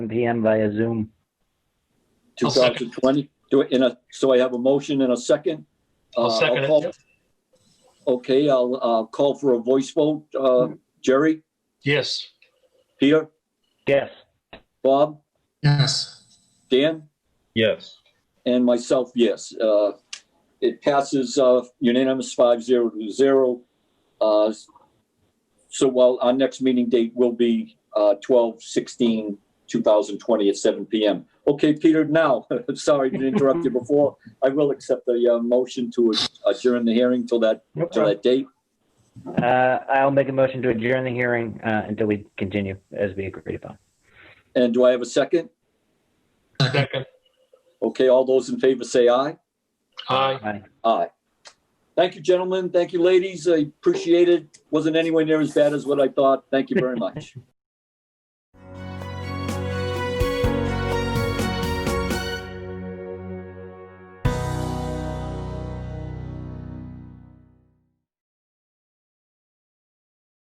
PM via Zoom. I'll second. 2020? Do it in a, so I have a motion and a second? I'll Uh, second it. call- Okay, I'll, uh call for a voice vote. Uh, Jerry, Yes, Peter, Yes, Bob, Yes, Dan, Yes. and myself, yes. Uh, it passes, uh, unanimous five zero to zero. Uh, so while our next meeting date will be, uh, twelve sixteen, two thousand twenty at seven PM. Okay, Peter, now, sorry to interrupt you before. I will accept the, uh, motion to adjourn the hearing till that, no till problem. that date. Uh, I'll make a motion to adjourn the hearing, uh, until we continue as we agreed upon. And do I have a second? second, second. Okay, all those in favor say aye. Aye. Aye. Aye. Thank you, gentlemen. Thank you, ladies. I appreciate it. Wasn't anywhere near as bad as what I thought. Thank you very much.